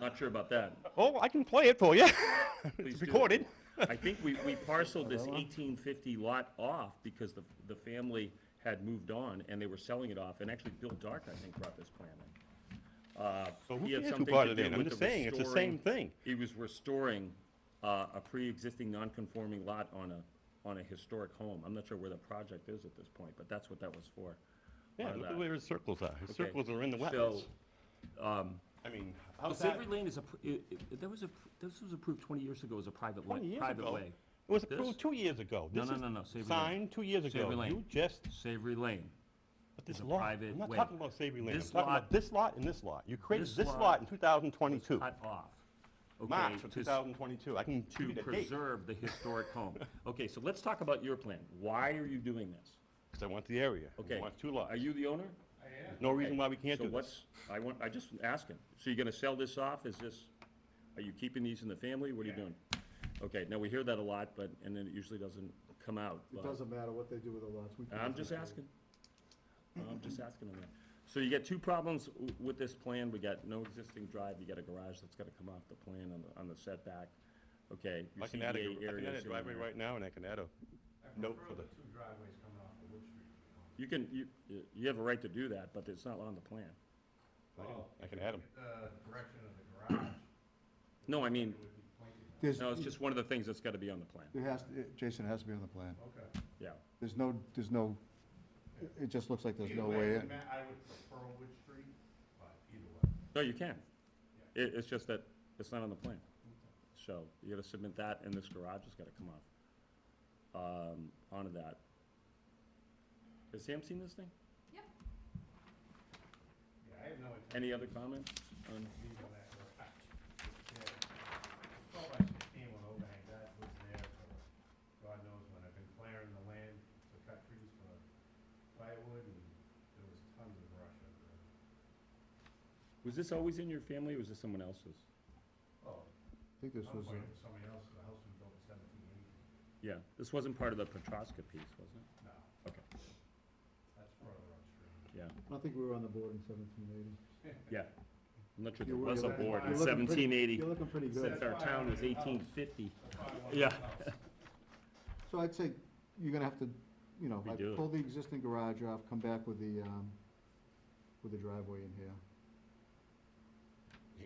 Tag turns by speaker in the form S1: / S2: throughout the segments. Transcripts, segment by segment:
S1: Not sure about that.
S2: Oh, I can play it for you.
S1: Please
S2: It's
S1: do.
S2: recorded.
S1: I think we, we parceled this eighteen fifty lot off because the, the family had moved on and they were selling it off, and actually Bill Dark, I think, brought this plan in. Uh,
S2: So who
S1: he had
S2: cares who
S1: something
S2: brought
S1: to
S2: it
S1: do
S2: in? I'm
S1: with
S2: just
S1: the
S2: saying, it's the
S1: restoring-
S2: same thing.
S1: He was restoring, uh, a pre-existing non-conforming lot on a, on a historic home. I'm not sure where the project is at this point, but that's what that was for.
S2: Yeah,
S1: on
S2: look
S1: that.
S2: at where his circles are. His
S1: Okay,
S2: circles are in the wetlands.
S1: so,
S2: I mean,
S1: Well,
S2: how's that?
S1: Savory Lane is a, pr- i- i- that was a, pr- this was approved twenty years ago as a private
S2: Twenty
S1: way,
S2: years
S1: private
S2: ago.
S1: way.
S2: It was
S1: This?
S2: approved two years ago.
S1: No,
S2: This
S1: no,
S2: is
S1: no, no, Savory Lane.
S2: Signed two years ago.
S1: Savory Lane.
S2: You just,
S1: Savory Lane.
S2: but this
S1: a
S2: lot,
S1: private
S2: I'm not
S1: way.
S2: talking about Savory Lane. I'm
S1: This
S2: talking about
S1: lot-
S2: this lot and this lot. You created
S1: this
S2: this
S1: lot
S2: lot in 2022,
S1: cut off. okay,
S2: March of
S1: to s-
S2: 2022. I can give
S1: To
S2: you the date.
S1: preserve the historic home. Okay, so let's talk about your plan. Why are you doing this?
S2: Because I want the area.
S1: Okay.
S2: I want two lots.
S1: Are you the owner?
S2: No reason why we can't
S1: So
S2: do this.
S1: what's, I want, I just asking. So you're gonna sell this off? Is this, are you keeping these in the family? What are you doing? Okay, now we hear that a lot, but, and then it usually doesn't come out.
S3: It
S1: but-
S3: doesn't matter what they do with the lots. we can
S1: I'm
S3: do
S1: just
S3: that.
S1: asking. I'm just asking on that. So you got two problems w- with this plan. We got no existing drive. You got a garage that's gotta come off the plan on the, on the setback. Okay. your
S2: I can add a,
S1: CBA
S2: gar- I can add
S1: areas
S2: a
S1: in
S2: driveway
S1: there.
S2: right now and I can add a note for the,
S4: Two driveways coming off of Wood Street.
S1: You can, you, you have a right to do that, but it's not on the plan.
S2: I can- I can add them.
S4: The Uh, direction of the garage
S1: No, I mean,
S4: would be pointing that.
S3: There's,
S1: no, it's just one of the things that's gotta be on the plan,
S3: it has, it- Jason, it has to be on the plan.
S4: Okay.
S1: yeah.
S3: There's no, there's no, it- it just looks like there's
S4: Either
S3: no
S4: way,
S3: way
S4: I
S3: in.
S4: mean, I would prefer Wood Street, but either way.
S1: No, you can. It, it's just that it's not on the plan. So you gotta submit that and this garage has gotta come off, um, onto that. Has Sam seen this thing?
S4: Yeah, I have no intention
S1: Any other comments? Um, on-
S4: of leaving that garage. Yeah. Twelve by sixteen with overhang, that was there for God knows when. I've been clearing the land to cut trees for firewood and there was tons of brush over there.
S1: Was this always in your family, or was this someone else's?
S4: Oh,
S3: I think this
S4: at
S3: was, a-
S4: some point it was somebody else's, the house was built in seventeen eighty.
S1: Yeah, this wasn't part of the Petroska piece, was it?
S4: No,
S1: Okay.
S4: that's further upstream.
S1: Yeah,
S3: I don't think we were on the board in seventeen eighty.
S1: yeah. I'm not sure there
S3: You were-
S1: was a
S3: you're-
S1: board in
S3: you're looking pretty-
S1: seventeen eighty,
S3: You're looking pretty
S1: since
S3: good.
S1: our town is eighteen fifty.
S4: That's why I wanted
S1: Yeah.
S4: the house.
S3: So I'd say you're gonna have to, you know, like
S1: Redo it.
S3: pull the existing garage off, come back with the, um, with the driveway in here.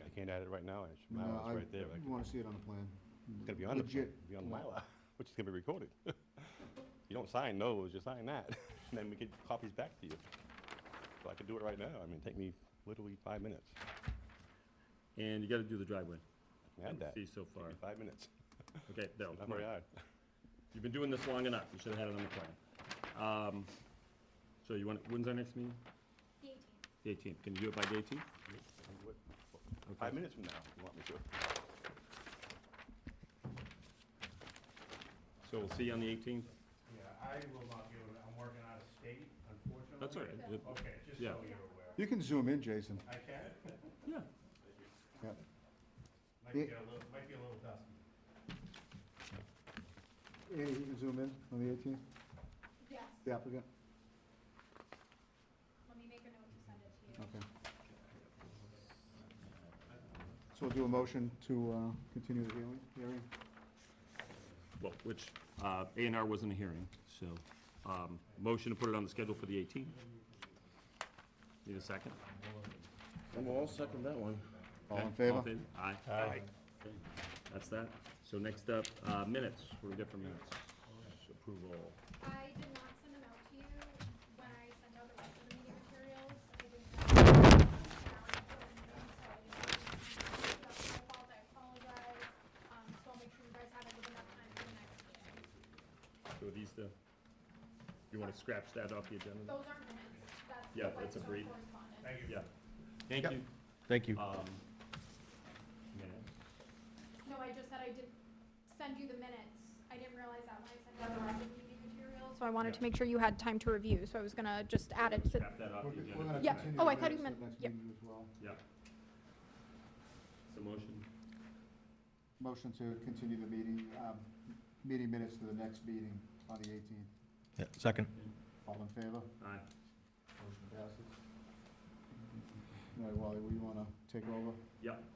S2: I can't add it right now. It's- My
S3: No,
S2: lot's
S3: I-
S2: right there. I
S3: You
S2: can-
S3: wanna see it on the plan.
S2: It's gonna be on the, plan,
S3: Legit
S2: it'll be on
S3: plan.
S2: Mylar, which is gonna be recorded. You don't sign those, you sign that, and then we get copies back to you. So I could do it right now. I mean, take me literally five minutes.
S1: And you gotta do the driveway.
S2: I can add that.
S1: See so far.
S2: Take me Five minutes.
S1: Okay, no,
S2: Not
S1: come on.
S2: very hard.
S1: You've been doing this long enough, you should have had it on the plan. Um, so you want, when's our next meeting?
S5: The 18th.
S1: The eighteenth, can you do it by the eighteenth?
S2: I'll do it Five minutes from now, if you want me to.
S1: So we'll see you on the eighteenth?
S4: Yeah, I will not be able to, I'm working out of state, unfortunately.
S1: That's all right. It-
S4: Okay, just
S1: Yeah.
S4: so you're aware.
S3: You can zoom in, Jason.
S4: I can,
S1: Yeah,
S3: Yeah.
S4: might
S3: Yeah.
S4: get a little, might be a little dusty.
S3: Andy, you can zoom in on the eighteenth,
S5: Yes,
S3: the applicant,
S5: let me make a note to send it to you.
S3: okay. So we'll do a motion to, uh, continue the hearing, hearing.
S1: well, which, uh, A and R wasn't a hearing, so, um, motion to put it on the schedule for the eighteenth. Need a second?
S6: I'll second that one.
S3: All in
S1: Okay,
S3: favor?
S1: Aye.
S2: Aye.
S1: Okay, That's that. So next up, uh, minutes, what do we get for minutes? Approval.
S5: I did not send them out to you when I sent out the rest of the meeting materials. I didn't have- and I was putting them in, so I didn't have them. That's my fault, I apologize. Um, So I'll make sure you guys have it with enough time for the next meeting.
S1: So are these the, you want to scratch that off the agenda? then?
S5: Those aren't minutes, that's the
S1: Yeah, that's
S5: Whitestone
S1: agreed.
S5: correspondence.
S4: Thank you.
S1: Yeah. Thank you.
S6: Thank you.
S1: Um, minutes.
S5: No, I just said I did send you the minutes. I didn't realize that when I sent out the rest of the meeting materials. So I wanted to make sure you had time to review, so I was gonna just add it to
S1: Scrap that off the agenda. for
S5: Yeah.
S1: tonight.
S5: Oh, I thought you meant-
S3: Next
S5: yep.
S3: meeting as well.
S1: Yeah. So motion,
S3: Motion to continue the meeting, um, meeting minutes to the next meeting on the eighteenth.
S6: Yeah, second.
S3: All in favor?
S1: aye.
S3: Motion passes. All right, Wally, we wanna take over?
S1: Yep.